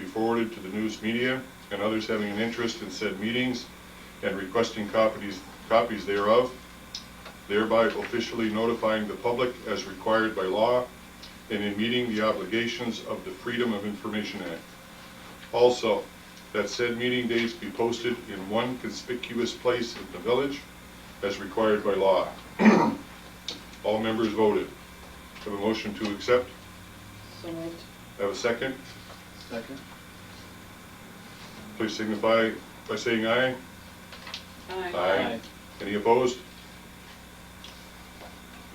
forwarded to the news media and others having an interest in said meetings and requesting copies, copies thereof, thereby officially notifying the public as required by law and in meeting the obligations of the Freedom of Information Act. Also, that said meeting dates be posted in one conspicuous place in the village as required by law. All members voted. Have a motion to accept? So moved. Have a second? Second? Please signify by saying aye. Aye. Any opposed?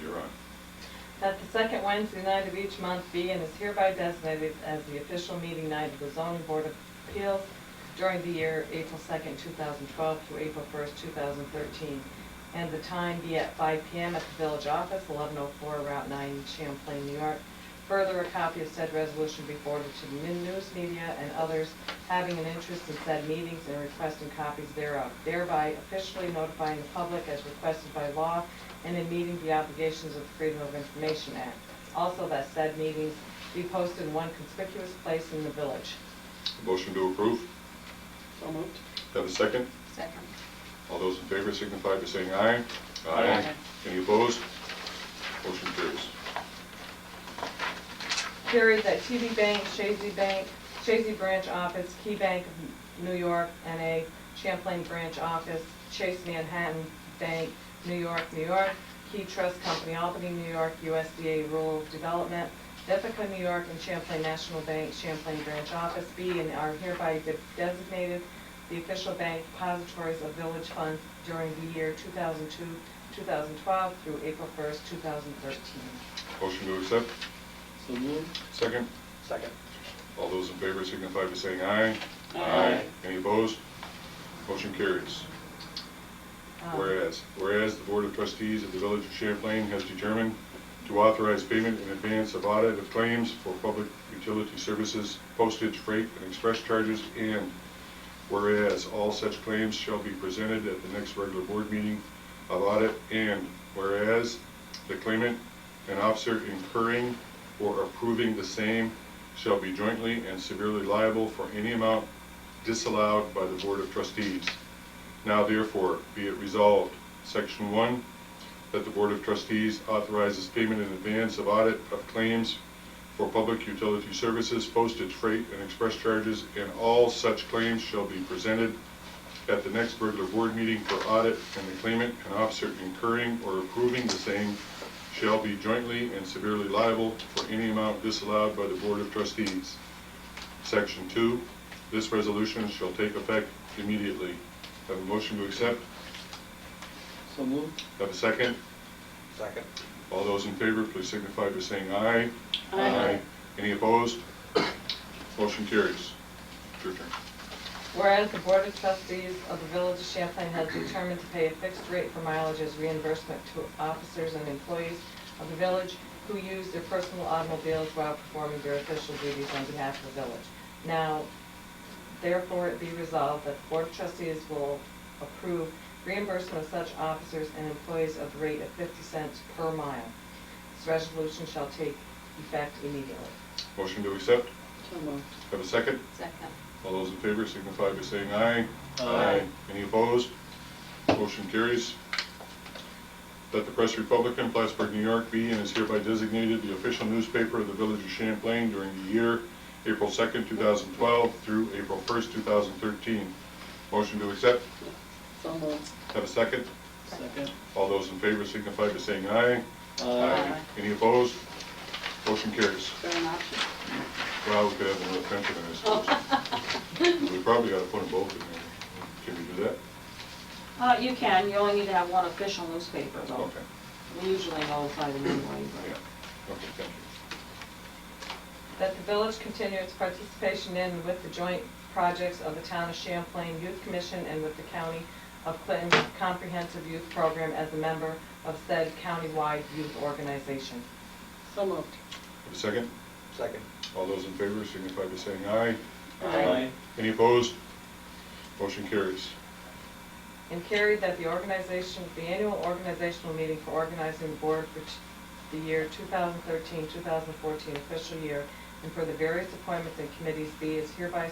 You're on. That the second Wednesday night of each month be and is hereby designated as the official meeting night of the zoning board of appeals during the year April 2nd, 2012 through April 1st, 2013. And the time be at 5 PM at the village office, 1104 Route 9, Champlain, New York. Further, a copy of said resolution be forwarded to the min- news media and others having an interest in said meetings and requesting copies thereof, thereby officially notifying the public as requested by law and in meeting the obligations of the Freedom of Information Act. Also, that said meetings be posted in one conspicuous place in the village. Motion to approve. So moved. Have a second? Second. All those in favor signify by saying aye. Aye. Any opposed? Motion carries. Carries at TD Bank, Shazy Bank, Shazy Branch Office, Key Bank of New York, NA, Champlain Branch Office, Chase Manhattan Bank, New York, New York, Key Trust Company, Albany, New York, USDA Rural Development, Ithaca, New York, and Champlain National Bank, Champlain Branch Office, B, and are hereby de- designated the official bank depositories of village funds during the year 2002, 2012 through April 1st, 2013. Motion to accept. So moved? Second? Second. All those in favor signify by saying aye. Aye. Any opposed? Motion carries. Um, Whereas, whereas the Board of Trustees of the Village of Champlain has determined to authorize payment in advance of audit of claims for public utility services, postage, freight, and express charges, and whereas all such claims shall be presented at the next regular board meeting of audit, and whereas the claimant and officer incurring or approving the same shall be jointly and severally liable for any amount disallowed by the Board of Trustees. Now therefore, be it resolved, Section 1, that the Board of Trustees authorizes payment in advance of audit of claims for public utility services, postage, freight, and express charges, and all such claims shall be presented at the next regular board meeting for audit, and the claimant and officer incurring or approving the same shall be jointly and severally liable for any amount disallowed by the Board of Trustees. Section 2, this resolution shall take effect immediately. Have a motion to accept? So moved? Have a second? Second. All those in favor, please signify by saying aye. Aye. Any opposed? Motion carries. It's Your turn. Whereas the Board of Trustees of the Village of Champlain has determined to pay a fixed rate for mileage as reimbursement to officers and employees of the village who use their personal automobiles while performing their official duties on behalf of the village. Now, therefore it be resolved that the Board of Trustees will approve reimbursement of such officers and employees of the rate of 50 cents per mile. This resolution shall take effect immediately. Motion to accept? So moved. Have a second? Second. All those in favor signify by saying aye. Aye. Any opposed? Motion carries. That the Press Republican, Plattsburgh, New York be and is hereby designated the official newspaper of the Village of Champlain during the year April 2nd, 2012 through April 1st, 2013. Motion to accept? So moved. Have a second? Second? All those in favor signify by saying aye. Aye. Any opposed? Motion carries. For an option? Well, we could have another pension in this. We probably ought to put them both in there. Can we do that? Uh, you can, you only need to have one official newspaper though. Okay. We usually notify them anyway, Yeah, but. okay, thank you. That the village continue its participation in and with the joint projects of the Town of Champlain Youth Commission and with the County of Clinton's Comprehensive Youth Program as a member of said countywide youth organization. So moved. Have a second? Second. All those in favor signify by saying aye. Aye. Any opposed? Motion carries. And carried that the organization, the annual organizational meeting for organizing the board for t- the year 2013-2014 official year and for the various appointments and committees be is hereby